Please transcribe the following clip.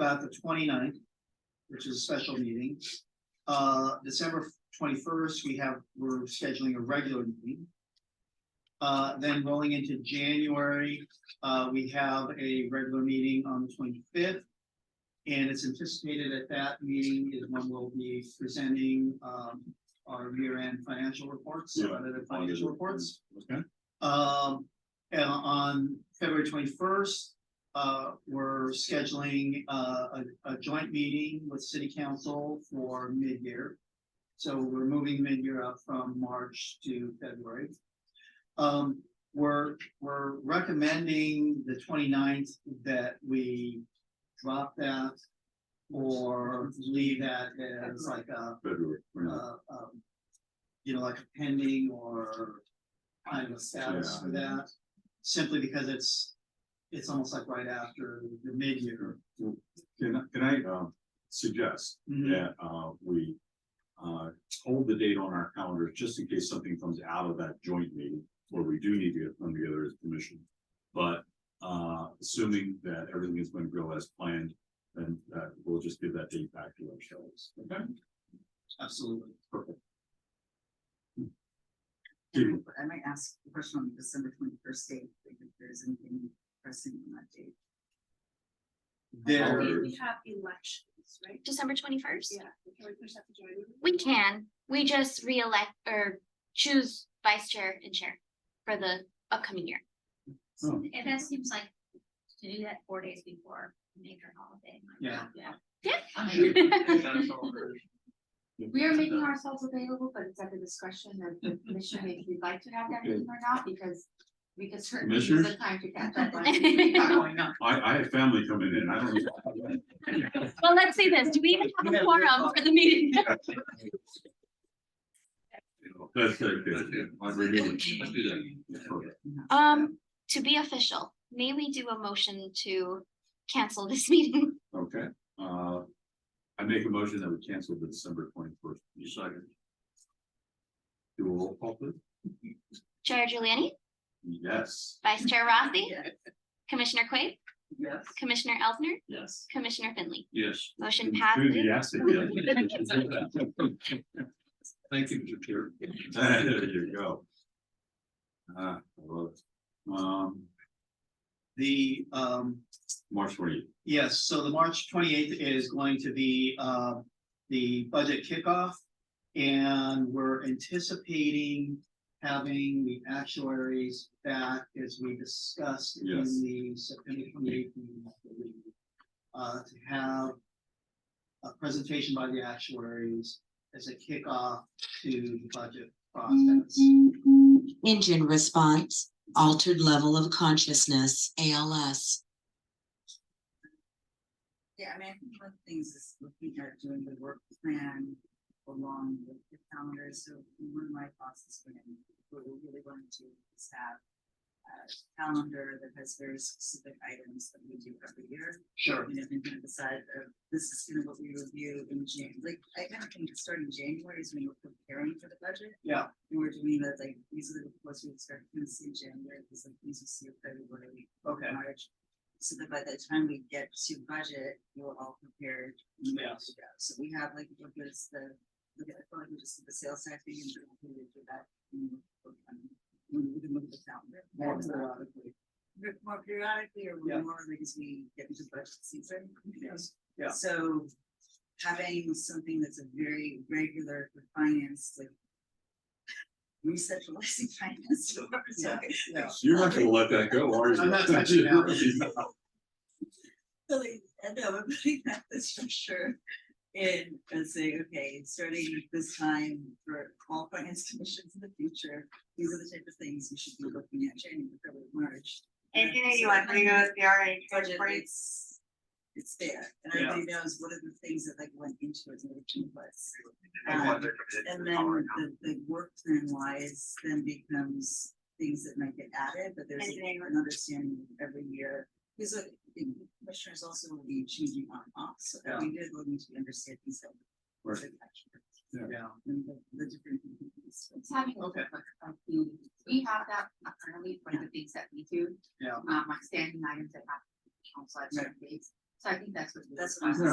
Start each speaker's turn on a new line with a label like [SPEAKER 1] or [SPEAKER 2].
[SPEAKER 1] about the 29th, which is a special meeting. Uh, December twenty-first, we have, we're scheduling a regular meeting. Uh, then rolling into January, uh, we have a regular meeting on the twenty-fifth. And it's anticipated at that meeting is when we'll be presenting, um, our year-end financial reports,
[SPEAKER 2] Yeah.
[SPEAKER 1] audited financial reports.
[SPEAKER 2] Okay.
[SPEAKER 1] Um, and on February twenty-first, uh, we're scheduling, uh, a, a joint meeting with city council for mid-year. So we're moving mid-year up from March to February. Um, we're, we're recommending the 29th that we drop that or leave that as like a
[SPEAKER 2] February. we're not-
[SPEAKER 1] uh, um, you know, like a pending or kind of status for
[SPEAKER 2] Yeah.
[SPEAKER 1] that, simply because it's, it's almost like right after the mid-year.
[SPEAKER 2] Can, I- can I, um, suggest
[SPEAKER 1] Mm-hmm.
[SPEAKER 2] that, uh, we, uh, hold the date on our calendar just in case something comes out of that joint meeting where we do need to get come together as a commission. But, uh, assuming that everything is going to go as planned, then, uh, we'll just give that date back to ourselves. Okay.
[SPEAKER 1] Absolutely.
[SPEAKER 2] Keep-
[SPEAKER 3] I might ask the question on the December twenty-first date, like, if there's anything pressing on that date.
[SPEAKER 1] There,
[SPEAKER 4] We have elections, right?
[SPEAKER 5] December twenty-first?
[SPEAKER 4] Yeah. Can we push that to January?
[SPEAKER 5] We can, we just reelect or choose vice chair and chair for the upcoming year.
[SPEAKER 2] oh,
[SPEAKER 6] And that seems like to do that four days before major holiday. like,
[SPEAKER 1] Yeah.
[SPEAKER 6] We are making ourselves available, but it's at the discretion of the commission if we'd like to have that meeting or not, because we could certainly use the
[SPEAKER 2] Commissioners?
[SPEAKER 6] time to catch up on. everything that's going on.
[SPEAKER 2] I, I have family coming in, I don't.
[SPEAKER 5] Well, let's say this, do we even have a quorum for the meeting?
[SPEAKER 2] That's okay. I'm renewing.
[SPEAKER 7] Let's do that.
[SPEAKER 2] Okay.
[SPEAKER 5] Um, to be official, may we do a motion to cancel this meeting?
[SPEAKER 2] Okay, uh, I make a motion that we cancel the December twenty-first. You second. Do a roll call, please.
[SPEAKER 5] Chair Giuliani,
[SPEAKER 2] Yes.
[SPEAKER 5] Vice Chair Rossi, Commissioner Quaid,
[SPEAKER 3] Yes.
[SPEAKER 5] Commissioner Elsner,
[SPEAKER 1] yes.
[SPEAKER 5] Commissioner Finley.
[SPEAKER 7] Yes.
[SPEAKER 5] Motion passes.
[SPEAKER 2] Enthusiastic, yeah.
[SPEAKER 7] Thank you, Mr. Chair.
[SPEAKER 2] There you go. Ah, I love it. Um,
[SPEAKER 1] The, um,
[SPEAKER 2] March twenty,
[SPEAKER 1] Yes, so the March twenty-eighth is going to be uh the budget kickoff. And we're anticipating having the actuaries back as we discussed in
[SPEAKER 2] Yes.
[SPEAKER 1] the September twenty-eighth. meeting, I believe, Uh, to have a presentation by the actuaries as a kickoff to the budget process.
[SPEAKER 8] Engine response, altered level of consciousness, ALS.
[SPEAKER 3] Yeah, I mean, I think one of the things is looking at doing the work plan along with the calendar, so one of my thoughts is gonna be, what we really want to do is have. a calendar that has very specific items that we do every year,
[SPEAKER 1] Sure.
[SPEAKER 3] you know, and kind of decide, uh, this is kind of what we review in Jan, like, I kind of think starting January is when we're preparing for the budget.
[SPEAKER 1] Yeah.
[SPEAKER 3] And we're doing that, like, these are the reports we expect to see in January, these are things we see in February,
[SPEAKER 1] Okay,
[SPEAKER 3] March. So that by the time we get to budget, you're all prepared. and ready
[SPEAKER 1] Yes.
[SPEAKER 3] to go. So we have like, what is the, look at, I feel like we just did the sales tax thing and we did do that. and we- We we can move the calendar.
[SPEAKER 1] more
[SPEAKER 3] That's not-
[SPEAKER 1] periodically.
[SPEAKER 3] bit more periodically or
[SPEAKER 1] Yeah.
[SPEAKER 3] more like as we get into budget season.
[SPEAKER 1] Yes, yeah.
[SPEAKER 3] So having something that's a very regular for finance, like recentralizing finance. to our- so-
[SPEAKER 1] yeah.
[SPEAKER 2] you're not gonna let that go, are you?
[SPEAKER 1] I'm not touching that.
[SPEAKER 3] So like, I know, I'm putting that this structure in and saying, okay, starting this time for all finance commissions in the future, these are the type of things we should be looking at January, February, March.
[SPEAKER 9] Eighteen eighty-one, we go with the RA,
[SPEAKER 3] budget,
[SPEAKER 9] Right.
[SPEAKER 3] it's, it's there, and
[SPEAKER 1] Yeah.
[SPEAKER 3] everybody knows what are the things that like went into it, and what it was.
[SPEAKER 1] And what
[SPEAKER 3] Um, And then the, the work plan wise then becomes things that might get added, but there's
[SPEAKER 9] Engineering.
[SPEAKER 3] an understanding every year. Because uh, the commissioners also will be changing on and off, so every year they'll need to understand these. elements.
[SPEAKER 2] Right.
[SPEAKER 1] Yeah,
[SPEAKER 3] And the, the different. components.
[SPEAKER 6] It's having a
[SPEAKER 1] Okay.
[SPEAKER 6] look of the, uh, we have that currently for the things that we do.
[SPEAKER 1] Yeah.
[SPEAKER 6] Um, like standing items that have council at certain dates.
[SPEAKER 10] So I think that's what.
[SPEAKER 6] That's what I was